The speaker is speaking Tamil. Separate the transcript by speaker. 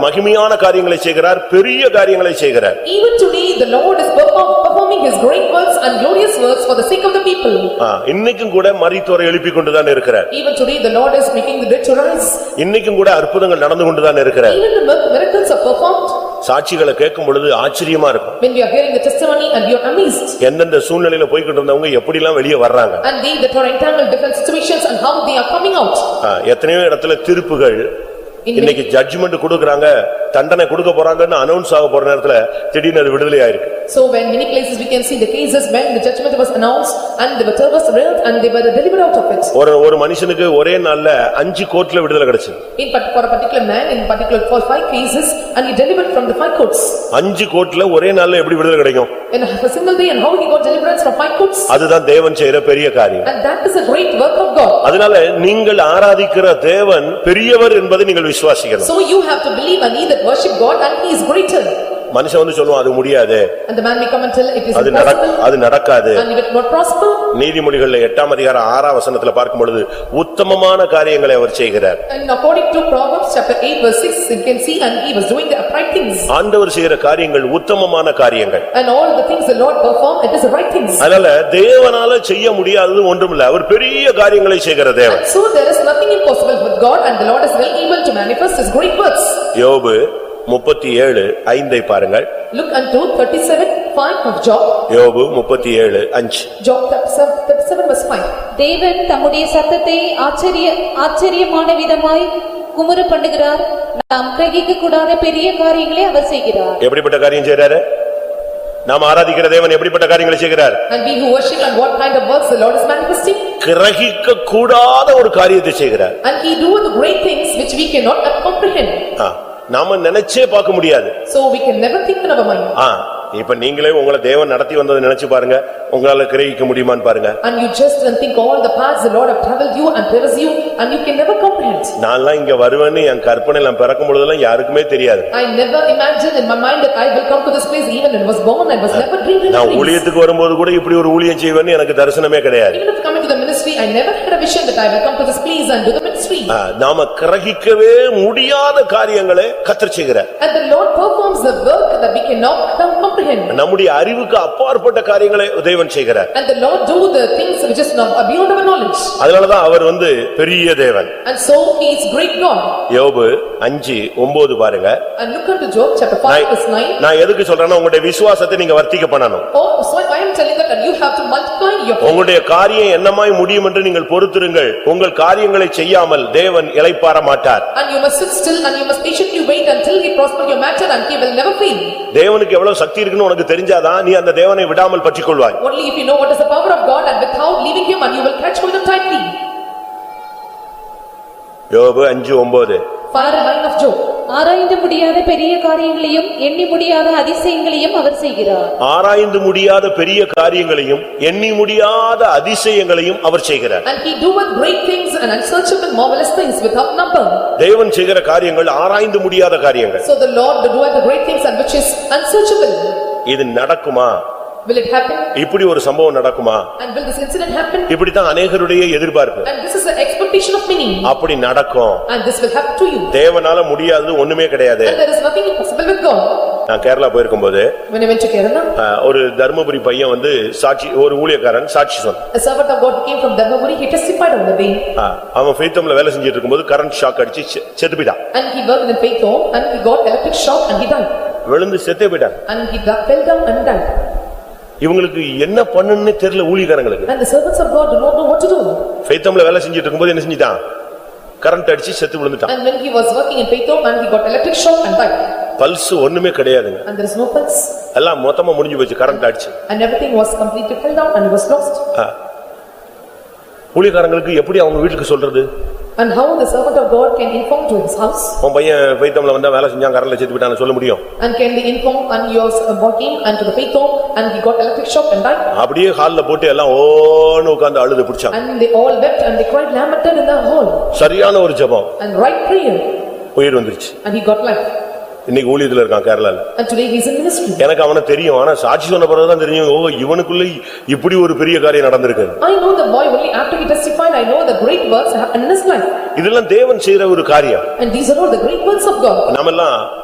Speaker 1: மகிமையான காரியங்களை செய்கிறார் பெரிய காரியங்களை செய்கிறார்
Speaker 2: Even today, the Lord is perform- performing his great works and glorious works for the sake of the people.
Speaker 1: ஆ, இன்னைக்கும் கூட மரித்தோரை எழுப்பிக் கொண்டுதான் இருக்கிறார்
Speaker 2: Even today, the Lord is making the dead to rise.
Speaker 1: இன்னைக்கும் கூட அற்புதங்கள் நடந்து கொண்டுதான் இருக்கிறார்
Speaker 2: Even the mir- miracles are performed.
Speaker 1: சாட்சிகளை கேட்கும் பொழுது ஆச்சரியமா இருக்கும்
Speaker 2: When we are hearing the testimony and we are amazed.
Speaker 1: எந்தெந்த சூழ்நிலையில போய்கிட்டு இருந்தவங்க எப்படிலாம் வெளியே வர்றாங்க
Speaker 2: And they that are entangled in different situations and how they are coming out.
Speaker 1: ஆ, எத்தனையோ இடத்துல தீர்ப்புகள்
Speaker 2: In many-
Speaker 1: இன்னைக்கு ஜட்ஜ்மெண்ட் கொடுக்கறாங்க தண்டனை கொடுக்க போறாங்கன்னு அனௌன்ஸ் ஆக போற நேரத்துல திடீர்னு அது விடுதலை ஆயிருக்கு
Speaker 2: So when many places we can see the cases when the judgment was announced and they were arrested and they were delivered out of it.
Speaker 1: ஒரு ஒரு மனுஷனுக்கு ஒரே நாள்ல அஞ்சு கோர்ட்ல விடுதலை கிடைச்சது
Speaker 2: In part- for a particular man, in particular for five cases and he delivered from the five courts.
Speaker 1: அஞ்சு கோர்ட்ல ஒரே நாள்ல எப்படி விடுதலை கிடைக்கும்
Speaker 2: In a single day and how he got deliverance from five courts.
Speaker 1: அதுதான் தேவன் செய்யற பெரிய காரியம்
Speaker 2: And that is a great work of God.
Speaker 1: அதனால நீங்கள் ஆராதிக்கிற தேவன் பெரியவர் என்பதை நீங்கள் விசுவாசிக்கணும்
Speaker 2: So you have to believe and he that worship God and he is greater.
Speaker 1: மனுஷன் வந்து சொல்லுவான் அது முடியாது
Speaker 2: And the man may come and tell it is
Speaker 1: அது நடக்
Speaker 2: impossible
Speaker 1: அது நடக்காது
Speaker 2: and it will not prosper.
Speaker 1: நீதிமொழிகள்ல எட்டாம் அதிகாரம் ஆறாம் வசனத்துல பார்க்கும் பொழுது உத்தமமான காரியங்களை அவர் செய்கிறார்
Speaker 2: And according to Proverbs chapter eight verse six, you can see and he was doing the upright things.
Speaker 1: ஆண்டவர் செய்யற காரியங்கள் உத்தமமான காரியங்கள்
Speaker 2: And all the things the Lord performed, it is the right things.
Speaker 1: அதனால தேவனால செய்ய முடியாதது ஒன்றுமில்ல அவர் பெரிய காரியங்களை செய்கிற தேவன்
Speaker 2: So there is nothing impossible with God and the Lord is well able to manifest his great works.
Speaker 1: யோபு முப்பத்தி ஏழு ஐந்தை பாருங்கள்
Speaker 2: Look unto thirty-seven, five of Job,
Speaker 1: யோபு முப்பத்தி ஏழு அஞ்சு
Speaker 2: Job thirty-seven verse five.
Speaker 3: தேவன் தம்முடைய சத்தத்தை ஆச்சரிய ஆச்சரியமான விதமாய் குமுற பண்ணுகிறார் நாம் கிரகிக்க கூடாத பெரிய காரியங்களை அவர் செய்கிறார்
Speaker 1: எப்படிப்பட்ட காரியம் செய்றாரு நாம் ஆராதிக்கிற தேவன் எப்படிப்பட்ட காரியங்களை செய்கிறார்
Speaker 2: And we who worship and what kind of works the Lord is manifesting,
Speaker 1: கிரகிக்க கூடாத ஒரு காரியத்தை செய்கிறார்
Speaker 2: and he doeth the great things which we cannot comprehend.
Speaker 1: ஆ, நாம நினைச்சே பார்க்க முடியாது
Speaker 2: So we can never think in our mind.
Speaker 1: ஆ, இப்ப நீங்களே உங்களை தேவன் நடத்தி வந்ததை நினைச்சு பாருங்க உங்களால கிரகிக்க முடியுமான்னு பாருங்க
Speaker 2: And you just and think all the paths the Lord have traveled you and there is you and you can never comprehend.
Speaker 1: நான்லாம் இங்க வருவேன்னு என் கற்பனை நான் பிறக்கும் பொழுதெல்லாம் யாருக்குமே தெரியாது
Speaker 2: I never imagined in my mind that I will come to this place even when I was born, I was never dreaming of
Speaker 1: நான்
Speaker 2: dreams.
Speaker 1: ஊழியத்துக்கு வரும்போது கூட இப்படி ஒரு ஊழியம் செய்வேன்னு எனக்கு தரிசனமே கிடையாது
Speaker 2: Even if coming to the ministry, I never had a vision that I will come to this place and do the ministry.
Speaker 1: ஆ, நாம கிரகிக்கவே முடியாத காரியங்களை கத்தர் செய்கிறார்
Speaker 2: And the Lord performs the work that we cannot comprehend.
Speaker 1: நம்முடைய அறிவுக்கு அப்பாற்பட்ட காரியங்களை தேவன் செய்கிறார்
Speaker 2: And the Lord do the things which is not beyond our knowledge.
Speaker 1: அதனாலதான் அவர் வந்து பெரிய தேவன்
Speaker 2: And so He is great God.
Speaker 1: யோபு அஞ்சு ஒன்பது பாருங்க
Speaker 2: And look unto Job chapter
Speaker 1: நான்
Speaker 2: five verse nine.
Speaker 1: நான் எதுக்கு சொல்றேன்னா உங்களுடைய விசுவாசத்தை நீங்க வர்த்திக்க பண்ணணும்
Speaker 2: Oh, so I am telling that and you have to multiply your faith.
Speaker 1: உங்களுடைய காரியம் என்னமாய் முடியும் என்று நீங்கள் பொறுத்திருங்கள் உங்கள் காரியங்களை செய்யாமல் தேவன் இளைப்பாற மாட்டார்
Speaker 2: And you must sit still and you must patiently wait until He prosper your matter and He will never fail.
Speaker 1: தேவனுக்கு எவ்வளவு சக்தி இருக்குன்னு உனக்கு தெரிஞ்சாதான் நீ அந்த தேவனை விடாமல் பற்றிக்கொள்வாய்
Speaker 2: Only if you know what is the power of God and without leaving Him and you will catch hold of tightly.
Speaker 1: யோபு அஞ்சு ஒன்பது
Speaker 2: Fire and line of Job.
Speaker 3: ஆராய்ந்து முடியாத பெரிய காரியங்களையும் எண்ணி முடியாத அதிசயங்களையும் அவர் செய்கிறார்
Speaker 1: ஆராய்ந்து முடியாத பெரிய காரியங்களையும் எண்ணி முடியாத அதிசயங்களையும் அவர் செய்கிறார்
Speaker 2: And he doeth great things and unsearchable marvelous things without number.
Speaker 1: தேவன் செய்கிற காரியங்கள் ஆராய்ந்து முடியாத காரியங்கள்
Speaker 2: So the Lord doeth the great things and which is unsearchable.
Speaker 1: இது நடக்குமா
Speaker 2: Will it happen?
Speaker 1: இப்படி ஒரு சம்பவம் நடக்குமா
Speaker 2: And will this incident happen?
Speaker 1: இப்படித்தான் அநேகருடைய எதிர்பார்ப்பு
Speaker 2: And this is the expectation of many.
Speaker 1: அப்படி நடக்கும்
Speaker 2: And this will happen to you.
Speaker 1: தேவனால முடியாதது ஒண்ணுமே கிடையாது
Speaker 2: And there is nothing impossible with God.
Speaker 1: நான் கேரளா போயிருக்கும்போது
Speaker 2: When I went to Kerala,
Speaker 1: ஆ, ஒரு தர்மபுரி பையன் வந்து சாட்சி ஒரு ஊழியக்காரன் சாட்சி சொன்னான்
Speaker 2: a servant of God came from Dharmaburi, he testified on the way.
Speaker 1: ஆ, அவன் ஃபெய்த்தம்ல வேலை செஞ்சிட்டு இருக்கும்போது கரண்ட் ஷாக் அடிச்சு செ- செத்து போயிட்டான்
Speaker 2: And he worked in faith home and he got electric shock and he died.
Speaker 1: விழுந்து செத்தே போயிட்டான்
Speaker 2: And he da- fell down and died.
Speaker 1: இவங்களுக்கு என்ன பண்ணுன்னு தெரியல ஊழியக்காரங்களுக்கு
Speaker 2: And the servants of God do not know what to do.
Speaker 1: ஃபெய்த்தம்ல வேலை செஞ்சிட்டு இருக்கும்போது என்ன செஞ்சிட்டான் கரண்ட் அடிச்சு செத்து விழுந்துட்டான்
Speaker 2: And when he was working in faith home and he got electric shock and died.
Speaker 1: Pulse ஒண்ணுமே கிடையாதுங்க
Speaker 2: And there is no pulse.
Speaker 1: எல்லாம் மொத்தமா முடிஞ்சு போச்சு கரண்ட் அடிச்சு
Speaker 2: And everything was completely fell down and was lost.
Speaker 1: ஆ. ஊழியக்காரங்களுக்கு எப்படி அவங்க வீட்டுக்கு சொல்றது
Speaker 2: And how the servant of God can inform to his house?
Speaker 1: உன் பையன் ஃபைத்தம்ல வந்தா வேலை செஞ்சான் கரண்ட்ல செத்து போயிட்டான்னு சொல்ல முடியும்
Speaker 2: And can they inform and yours working and to the faith home and he got electric shock and died?
Speaker 1: அப்படியே ஹால்ல போட்டு எல்லாம் ஓன்னு உட்கார்ந்து அழுது பிடிச்சாங்க
Speaker 2: And they all wept and they cried lamented in the hall
Speaker 1: சரியான ஒரு ஜெபம்
Speaker 2: and right prayer
Speaker 1: உயிர் வந்துருச்சு
Speaker 2: and he got life.
Speaker 1: இன்னைக்கு ஊழியத்துல இருக்கான் கேரளால
Speaker 2: and today he is in ministry.
Speaker 1: எனக்கு அவன தெரியும் ஆனா சாட்சி சொன்ன பிறகுதான் தெரியும் ஓ இவனுக்குள்ள இப்படி ஒரு பெரிய காரியம் நடந்திருக்கு
Speaker 2: I know the boy only after he testified, I know the great works happened in his life.
Speaker 1: இதெல்லாம் தேவன் செய்யற ஒரு காரியம்
Speaker 2: And these are all the great works of God.
Speaker 1: நாமெல்லாம்